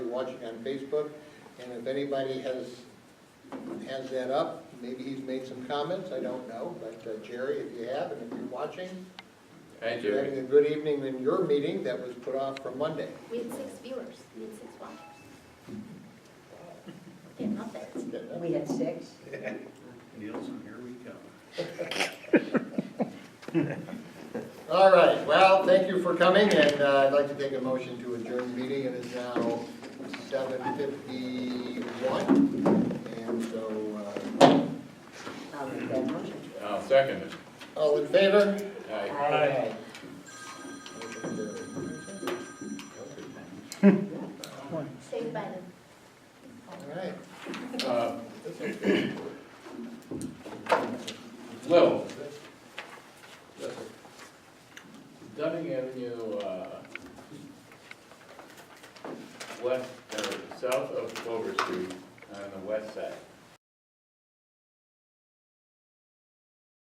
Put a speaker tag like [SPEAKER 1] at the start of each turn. [SPEAKER 1] watching on Facebook, and if anybody has, has that up, maybe he's made some comments, I don't know, but uh, Jerry, if you have, and if you're watching,
[SPEAKER 2] Thank
[SPEAKER 1] you're
[SPEAKER 2] you.
[SPEAKER 1] having a good evening in your meeting that was put off for Monday.
[SPEAKER 3] We had six viewers, we had six watchers. Yeah, not that.
[SPEAKER 4] We had six.
[SPEAKER 5] Nielsen, here we come.
[SPEAKER 1] All right, well, thank you for coming, and uh, I'd like to take a motion to adjourn the meeting. It is now seven fifty-one, and so, uh,
[SPEAKER 4] I'll make that motion.
[SPEAKER 2] I'll Um, second it.
[SPEAKER 1] all in favor?
[SPEAKER 2] Aye.
[SPEAKER 4] Aye.
[SPEAKER 1] Motion carried.
[SPEAKER 3] Saved by the
[SPEAKER 1] All right.
[SPEAKER 2] Uh, Lil. Dunning Avenue, uh, west, or south of Clover Street on the west side.